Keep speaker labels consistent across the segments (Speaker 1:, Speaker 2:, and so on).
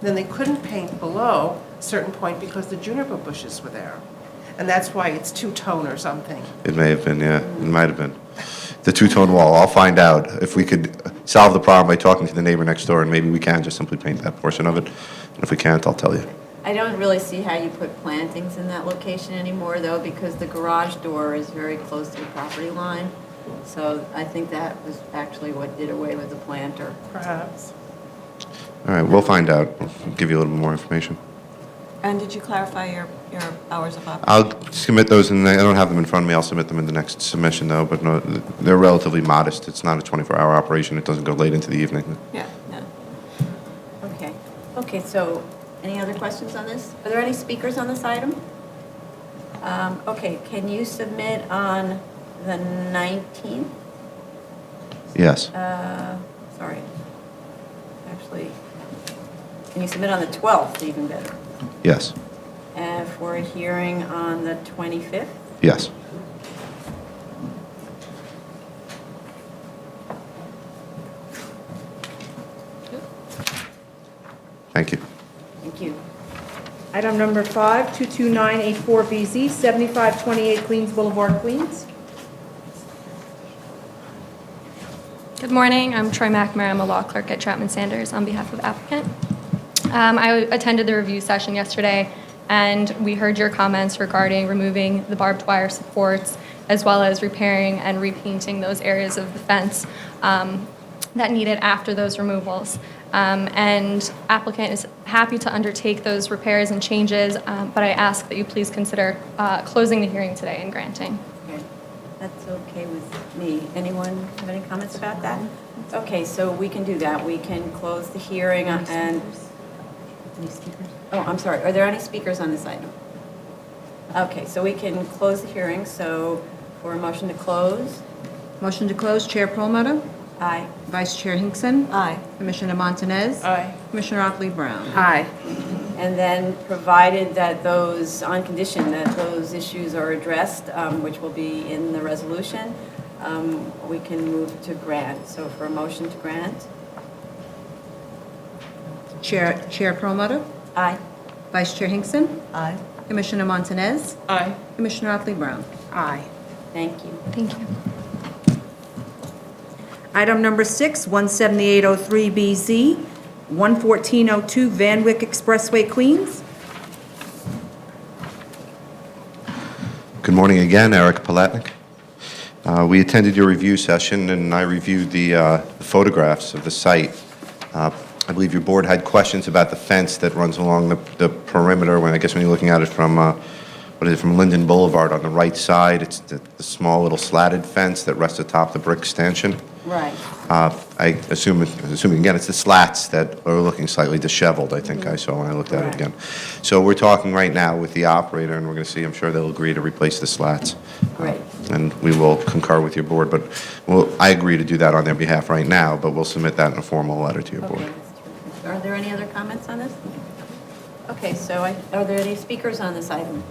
Speaker 1: Then they couldn't paint below a certain point because the juniper bushes were there. And that's why it's two-tone or something.
Speaker 2: It may have been, yeah, it might have been. The two-tone wall, I'll find out if we could solve the problem by talking to the neighbor next door, and maybe we can just simply paint that portion of it. And if we can't, I'll tell you.
Speaker 3: I don't really see how you put plantings in that location anymore, though, because the garage door is very close to the property line. So I think that was actually what did away with the planter.
Speaker 1: Perhaps.
Speaker 2: All right, we'll find out. I'll give you a little bit more information.
Speaker 4: And did you clarify your, your hours of operation?
Speaker 2: I'll submit those, and I don't have them in front of me. I'll submit them in the next submission, though, but no, they're relatively modest. It's not a 24-hour operation. It doesn't go late into the evening.
Speaker 4: Yeah, no.
Speaker 3: Okay, okay, so any other questions on this? Are there any speakers on this item? Um, Okay, can you submit on the 19th?
Speaker 2: Yes.
Speaker 3: Uh, Sorry, actually, can you submit on the 12th, even better,
Speaker 2: Yes.
Speaker 3: And for a hearing on the 25th?
Speaker 2: Yes. Thank you.
Speaker 3: Thank you.
Speaker 5: Item number five, 22984BZ, 7528 Queens Boulevard, Queens.
Speaker 6: Good morning. I'm Troy McNamara. I'm a law clerk at Chapman Sanders on behalf of applicant. Um, I attended the review session yesterday, and we heard your comments regarding removing the barbed wire supports, as well as repairing and repainting those areas of the fence um, that needed after those removals. Um, And applicant is happy to undertake those repairs and changes, um, but I ask that you please consider uh, closing the hearing today and granting.
Speaker 3: Okay, That's okay with me. Anyone have any comments about that? Okay, so we can do that. We can close the hearing and... Any speakers? Oh, I'm sorry. Are there any speakers on this item? Okay, so we can close the hearing, so for a motion to close?
Speaker 7: Motion to close, Chair Perlmutter,
Speaker 3: Aye.
Speaker 7: Vice Chair Hinkson.
Speaker 4: Aye.
Speaker 7: Commissioner Montanez.
Speaker 1: Aye.
Speaker 7: Commissioner Otley Brown.
Speaker 1: Aye.
Speaker 3: And then, provided that those, on condition that those issues are addressed, um, which will be in the resolution, um, we can move to grant. So for a motion to grant?
Speaker 7: Chair Chair Perlmutter,
Speaker 3: Aye.
Speaker 7: Vice Chair Hinkson.
Speaker 4: Aye.
Speaker 7: Commissioner Montanez.
Speaker 1: Aye.
Speaker 7: Commissioner Otley Brown.
Speaker 1: Aye.
Speaker 3: Thank you.
Speaker 6: Thank you.
Speaker 5: Item number six, 17803BZ, 11402 Van Wyck Expressway, Queens.
Speaker 2: Good morning again, Eric Palatnik. Uh, We attended your review session, and I reviewed the uh, photographs of the site. Uh, I believe your board had questions about the fence that runs along the the perimeter, when, I guess when you're looking at it from, uh, what is it, from Linden Boulevard on the right side, it's the the small little slatted fence that rests atop the brick stanchion.
Speaker 3: Right.
Speaker 2: Uh, I assume, assuming again, it's the slats that are looking slightly disheveled, I think I saw when I looked at it again. So we're talking right now with the operator, and we're going to see, I'm sure they'll agree to replace the slats.
Speaker 3: Great.
Speaker 2: And we will concur with your board, but, well, I agree to do that on their behalf right now, but we'll submit that in a formal letter to your board.
Speaker 3: Okay. Are there any other comments on this? Okay, so I- are there any speakers on this item?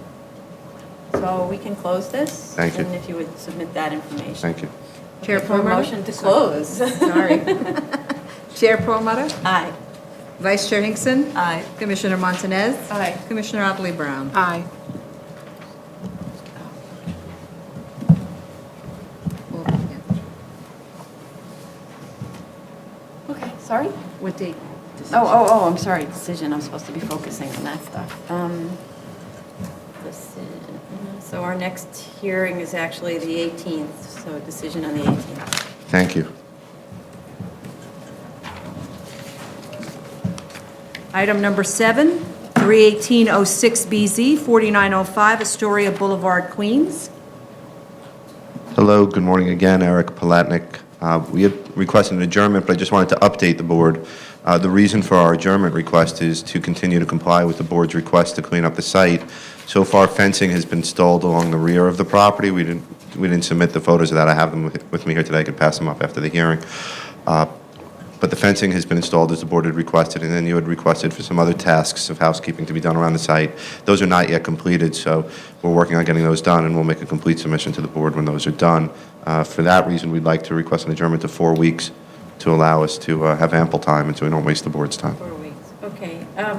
Speaker 3: So we can close this?
Speaker 2: Thank you.
Speaker 3: And if you would submit that information.
Speaker 2: Thank you.
Speaker 7: Chair
Speaker 3: For a
Speaker 7: Perlmutter.
Speaker 3: motion to close.
Speaker 7: Sorry. Chair Perlmutter,
Speaker 3: Aye.
Speaker 7: Vice Chair Hinkson.
Speaker 4: Aye.
Speaker 7: Commissioner Montanez.
Speaker 1: Aye.
Speaker 7: Commissioner Otley Brown.
Speaker 1: Aye.
Speaker 3: Okay, sorry?
Speaker 7: What date?
Speaker 3: Oh, oh, oh, I'm sorry, decision, I'm supposed to be focusing on that stuff. Um, decision. So our next hearing is actually the 18th, so decision on the 18th.
Speaker 2: Thank you.
Speaker 5: Item number seven, 31806BZ, 4905 Astoria Boulevard, Queens.
Speaker 2: Hello, good morning again, Eric Palatnik. Uh, We had requested an adjournment, but I just wanted to update the board. Uh, The reason for our adjournment request is to continue to comply with the board's request to clean up the site. So far fencing has been stalled along the rear of the property. We didn't, we didn't submit the photos of that. I have them with- with me here today. I could pass them up after the hearing. Uh, But the fencing has been installed as the board had requested, and then you had requested for some other tasks of housekeeping to be done around the site. Those are not yet completed, so we're working on getting those done, and we'll make a complete submission to the board when those are done. Uh, For that reason, we'd like to request an adjournment to four weeks to allow us to uh, have ample time and so we don't waste the board's time.
Speaker 3: Four weeks. um,